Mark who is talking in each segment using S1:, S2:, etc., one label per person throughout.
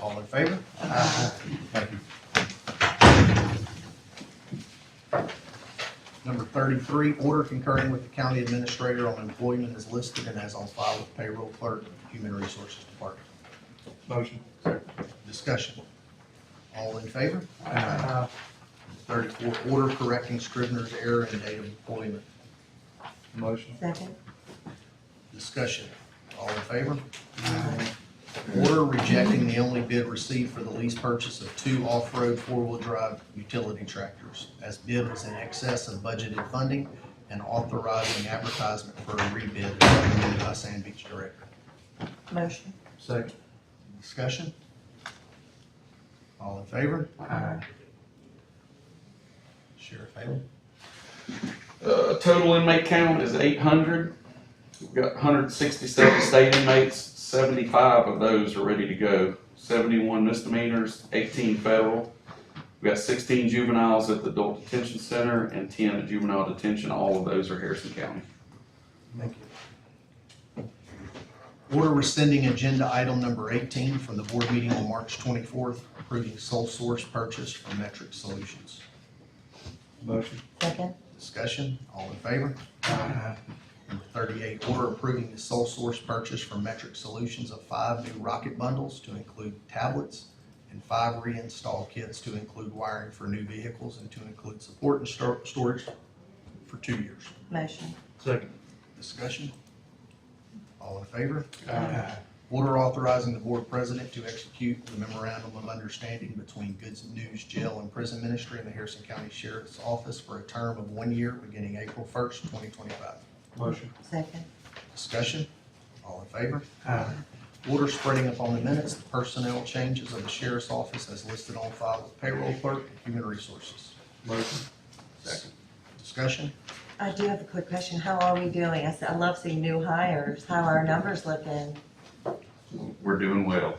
S1: All in favor? Thank you. Number thirty-three, order concurring with the county administrator on employment as listed and as on file with payroll clerk, human resources department.
S2: Motion.
S1: Discussion. All in favor? Thirty-four, order correcting scrivener's error in date of employment.
S2: Motion.
S3: Second.
S1: Discussion. All in favor? Order rejecting the only bid received for the lease purchase of two off-road four-wheel drive utility tractors as bid was in excess of budgeted funding and authorizing advertisement for a rebid as recommended by Sand Beach Director.
S3: Motion.
S2: Second.
S1: Discussion? All in favor?
S2: Aye.
S1: Sheriff Halen?
S4: Uh, total inmate count is eight hundred. We've got hundred and sixty-seven state inmates, seventy-five of those are ready to go. Seventy-one misdemeanors, eighteen federal. We've got sixteen juveniles at the adult detention center and ten at juvenile detention. All of those are Harrison County.
S1: Thank you. Order rescinding agenda item number eighteen from the board meeting on March twenty-fourth, approving sole source purchase for Metric Solutions.
S2: Motion.
S3: Second.
S1: Discussion, all in favor? Number thirty-eight, order approving the sole source purchase for Metric Solutions of five new rocket bundles to include tablets and five reinstall kits to include wiring for new vehicles and to include support and stor- storage for two years.
S3: Motion.
S2: Second.
S1: Discussion? All in favor? Order authorizing the board president to execute the memorandum of understanding between Goods News Jail and Prison Ministry and the Harrison County Sheriff's Office for a term of one year beginning April first, twenty twenty-five.
S2: Motion.
S3: Second.
S1: Discussion? All in favor? Order spreading upon the minutes the personnel changes of the sheriff's office as listed on file with payroll clerk and human resources.
S2: Motion.
S4: Second.
S1: Discussion?
S3: I do have a quick question. How are we doing? I s- I love seeing new hires. How are our numbers looking?
S4: We're doing well.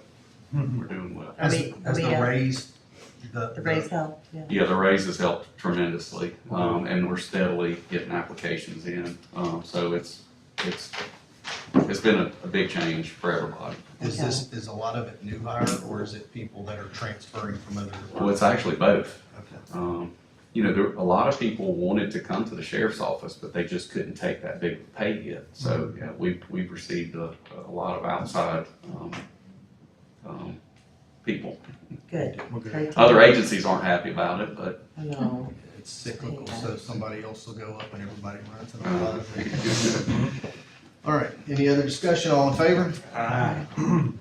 S4: We're doing well.
S3: Are
S1: As,
S3: we-
S1: as
S3: are we,
S1: the
S3: uh,
S1: raise, the.
S3: The raise help? Yeah.
S4: Yeah, the raise has helped tremendously, um, and we're steadily getting applications in. Um, so it's, it's, it's been a, a big change for everybody.
S1: Is this, is a lot of it new hire or is it people that are transferring from other
S4: Well,
S1: departments?
S4: it's actually both.
S1: Okay.
S4: Um, you know, there, a lot of people wanted to come to the sheriff's office, but they just couldn't take that big pay hit. So,
S2: Mm-hmm.
S4: yeah, we've, we've received a, a lot of outside, um, um, people.
S3: Good.
S2: We're good.
S3: Great to
S4: Other
S3: hear.
S4: agencies aren't happy about it, but,
S3: I know.
S1: It's cyclical, so somebody else will go up and everybody runs and all
S4: uh,
S1: that. All right, any other discussion, all in favor?
S2: Aye.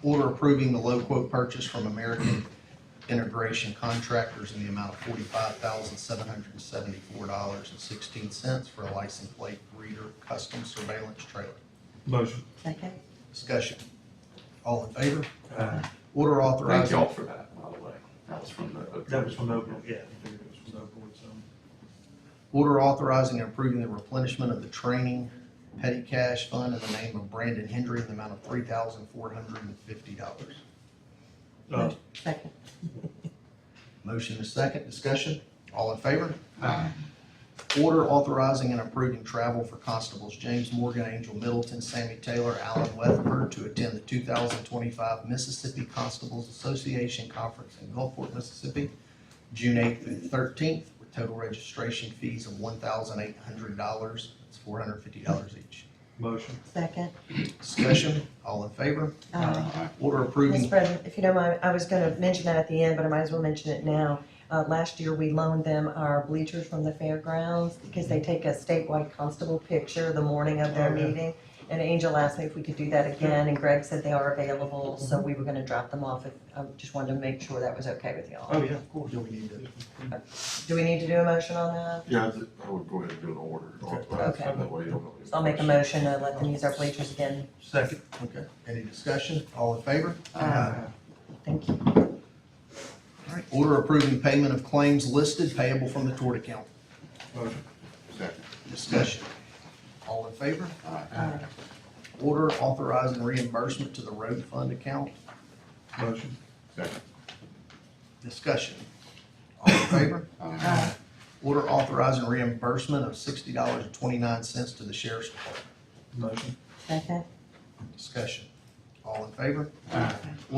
S1: Order approving the low quote purchase from American Integration Contractors in the amount of forty-five thousand, seven hundred and seventy-four dollars and sixteen cents for a license plate reader custom surveillance trailer.
S2: Motion.
S3: Second.
S1: Discussion, all in favor?
S2: Aye.
S1: Order
S4: thank
S1: authorizing,
S4: y'all for that, by the way. That was from the.
S2: That was from Oakland, yeah. I figured it was from Oakland, so.
S1: order authorizing and approving the replenishment of the training petty cash fund in the name of Brandon Hendry in the amount of three thousand, four hundred and fifty dollars.
S2: Uh,
S3: Second.
S1: Motion is second, discussion, all in favor? Order authorizing and approving travel for constables James Morgan, Angel Middleton, Sammy Taylor, Alan Weatherford to attend the two thousand twenty-five Mississippi Constables Association Conference in Gulfport, Mississippi, June eighth through thirteenth, with total registration fees of one thousand eight hundred dollars. That's four hundred fifty dollars each.
S2: Motion.
S3: Second.
S1: Discussion, all in favor?
S2: Uh,
S3: Aye.
S1: Order
S3: Mr.
S1: approving,
S3: President, if you don't mind, I was gonna mention that at the end, but I might as well mention it now. Uh, last year, we loaned them our bleachers from the fairgrounds because they take a statewide constable picture the morning of their
S2: Oh, yeah.
S3: meeting. And Angel asked me if we could do that again, and Greg said they are available, so
S2: Mm-hmm.
S3: we were gonna drop them off. If I just wanted to make sure that was okay with y'all.
S2: Oh, yeah, of course.
S1: do we need to,
S3: Do we need to do a motion on that?
S5: Yeah, I th- I would go ahead and do an order. authorize it,
S3: Okay.
S5: That way you don't.
S3: So I'll make a motion to let them use our bleachers again.
S2: Second.
S1: okay, any discussion, all in favor?
S3: Thank you.
S1: All right. Order approving payment of claims listed payable from the tort account.
S2: Motion.
S5: Second.
S1: Discussion. All in favor?
S3: Aye.
S1: Order authorizing reimbursement to the road fund account.
S2: Motion.
S5: Second.
S1: Discussion. All in favor?
S3: Aye.
S1: Order authorizing reimbursement of sixty dollars and twenty-nine cents to the sheriff's department.
S2: Motion.
S3: Second.
S1: Discussion. All in favor?